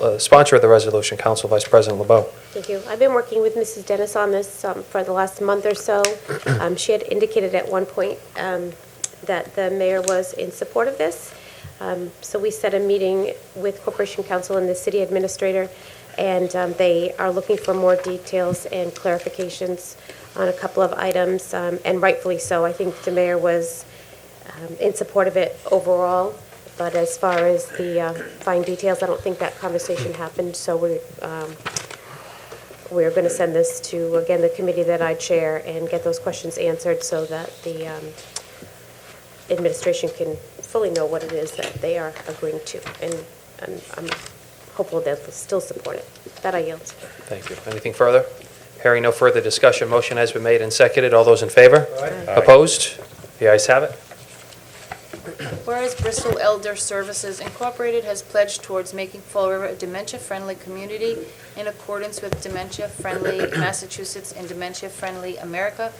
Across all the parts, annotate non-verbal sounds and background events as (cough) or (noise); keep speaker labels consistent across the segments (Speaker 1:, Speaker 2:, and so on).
Speaker 1: uh, sponsor of the resolution, Council Vice President LeBeau.
Speaker 2: Thank you. I've been working with Mrs. Dennis on this um, for the last month or so. Um, She had indicated at one point um, that the mayor was in support of this. Um, So we set a meeting with Corporation Council and the city administrator, and um, they are looking for more details and clarifications on a couple of items, um, and rightfully so. I think the mayor was um, in support of it overall, but as far as the uh, fine details, I don't think that conversation happened, so we're um, we're going to send this to, again, the committee that I chair and get those questions answered so that the um, administration can fully know what it is that they are agreeing to. And I'm- I'm hopeful they'll still support it. That I yield.
Speaker 1: Thank you. Anything further? Hearing no further discussion, motion has been made and seconded. All those in favor?
Speaker 2: Aye.
Speaker 1: Opposed? The ayes have it.
Speaker 3: Whereas Bristol Elder Services Incorporated has pledged towards making Fall River a dementia-friendly community in accordance with dementia-friendly Massachusetts and dementia-friendly America.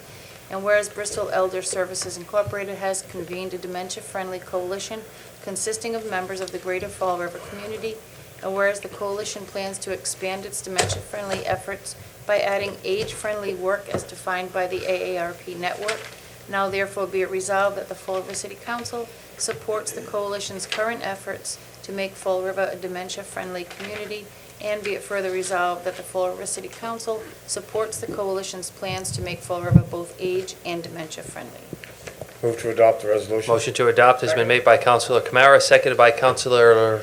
Speaker 3: And whereas Bristol Elder Services Incorporated has convened a dementia-friendly coalition consisting of members of the greater Fall River community. And whereas the coalition plans to expand its dementia-friendly efforts by adding age-friendly work as defined by the AARP network. Now therefore be it resolved that the Fall River City Council supports the coalition's current efforts to make Fall River a dementia-friendly community, and be it further resolved that the Fall River City Council supports the coalition's plans to make Fall River both age and dementia-friendly.
Speaker 4: Move to adopt the resolution.
Speaker 1: Motion to adopt has been made by Councilor Kamara, seconded by Councilor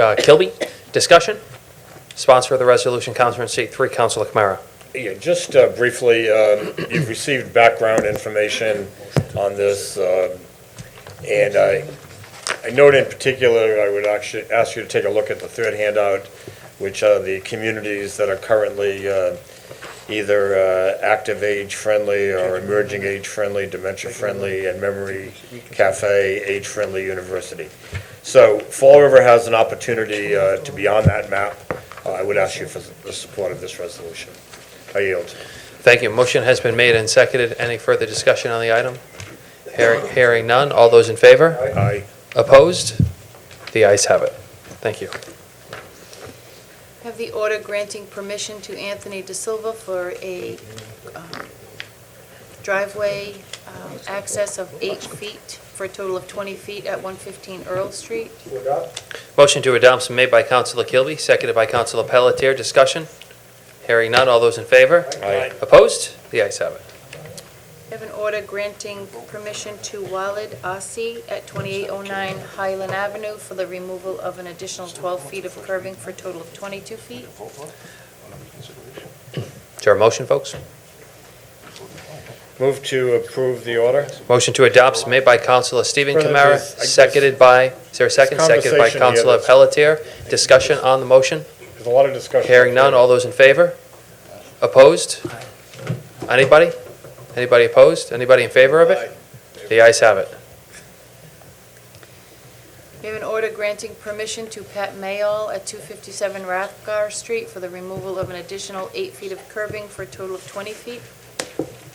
Speaker 1: uh, Kilby. Discussion? Sponsor of the resolution, Councilor in seat three, Councilor Kamara.
Speaker 4: Yeah, just uh, briefly, um, (clears throat) you've received background information on this, um, and I I note in particular, I would actually ask you to take a look at the third handout, which are the communities that are currently uh, either uh, active age-friendly or emerging age-friendly, dementia-friendly, and memory cafe, age-friendly university. So Fall River has an opportunity uh, to be on that map. Uh, I would ask you for the support of this resolution. I yield.
Speaker 1: Thank you. Motion has been made and seconded. Any further discussion on the item? Hearing hearing none. All those in favor?
Speaker 4: Aye.
Speaker 1: Opposed? The ayes have it. Thank you.
Speaker 3: Have the order granting permission to Anthony De Silva for a um, driveway um, access of eight feet for a total of 20 feet at 115 Earl Street.
Speaker 1: Motion to adopt is made by Councilor Kilby, seconded by Councilor Pelletier. Discussion? Hearing none. All those in favor?
Speaker 4: Aye.
Speaker 1: Opposed? The ayes have it.
Speaker 3: I have an order granting permission to Walid Asi at 2809 Highland Avenue for the removal of an additional 12 feet of curving for a total of 22 feet.
Speaker 1: Is there a motion, folks?
Speaker 4: Move to approve the order.
Speaker 1: Motion to adopt is made by Councilor Stephen
Speaker 4: Brother,
Speaker 1: Kamara,
Speaker 4: there's- I guess-
Speaker 1: seconded by, is there a second? Seconded by
Speaker 4: conversation here
Speaker 1: Councilor
Speaker 4: that's-
Speaker 1: Pelletier. Discussion on the motion?
Speaker 4: There's a lot of discussion.
Speaker 1: Hearing none. All those in favor? Opposed? Anybody? Anybody opposed? Anybody in favor of it? The ayes have it.
Speaker 3: We have an order granting permission to Pat Mayall at 257 Rathgar Street for the removal of an additional eight feet of curbing for a total of 20 feet.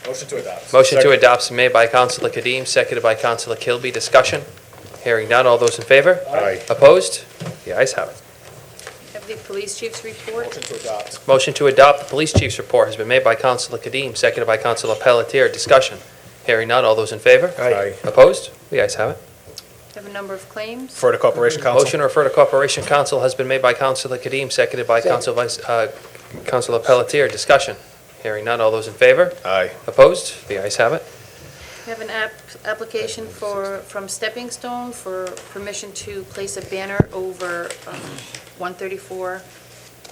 Speaker 4: Motion to adopt.
Speaker 1: Motion to adopt is made by Councilor Kadim, seconded by Councilor Kilby. Discussion? Hearing none. All those in favor?
Speaker 4: Aye.
Speaker 1: Opposed? The ayes have it.
Speaker 3: Have the police chief's report.
Speaker 4: to adopt.
Speaker 1: Motion to adopt the police chief's report has been made by Councilor Kadim, seconded by Councilor Pelletier. Discussion? Hearing none. All those in favor?
Speaker 4: Aye.
Speaker 1: Opposed? The ayes have it.
Speaker 3: Have a number of claims.
Speaker 5: Refer to Corporation Council.
Speaker 1: Motion to refer to Corporation Council has been made by Councilor Kadim, seconded by Council Vice, uh, Councilor Pelletier. Discussion? Hearing none. All those in favor?
Speaker 5: Aye.
Speaker 1: Opposed? The ayes have it.
Speaker 3: We have an app, application for, from Stepping Stone for permission to place a banner over um, 134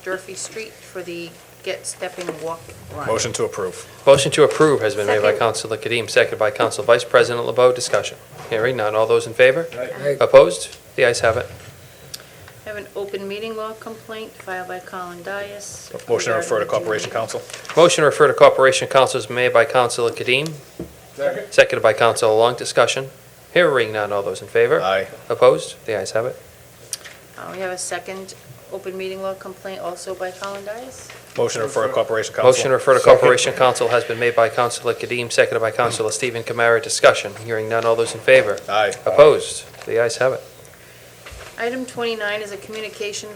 Speaker 3: Durfee Street for the Get Stepping Walk Run.
Speaker 5: Motion to approve.
Speaker 1: Motion to approve has been made by
Speaker 2: Second.
Speaker 1: Councilor Kadim, seconded by Council Vice President LeBeau. Discussion. Hearing none. All those in favor? Opposed? The ayes have it.
Speaker 3: We Have an open meeting law complaint filed by Colin Dias.
Speaker 5: Motion to refer to
Speaker 3: regarding-
Speaker 5: Corporation Council.
Speaker 1: Motion to refer to Corporation Council is made by Councilor Kadim,
Speaker 4: Second.
Speaker 1: seconded by Councilor Long. Discussion. Hearing none. All those in favor?
Speaker 5: Aye.
Speaker 1: Opposed? The ayes have it.
Speaker 3: Uh, We have a second open meeting law complaint also by Colin Dias.
Speaker 5: Motion to refer to Corporation Council.
Speaker 1: Motion to refer to Corporation Council has been made by Councilor Kadim, seconded by Councilor Stephen Kamara. Discussion. Hearing none. All those in favor?
Speaker 5: Aye.
Speaker 1: Opposed? The ayes have it.
Speaker 3: Item 29 is a communication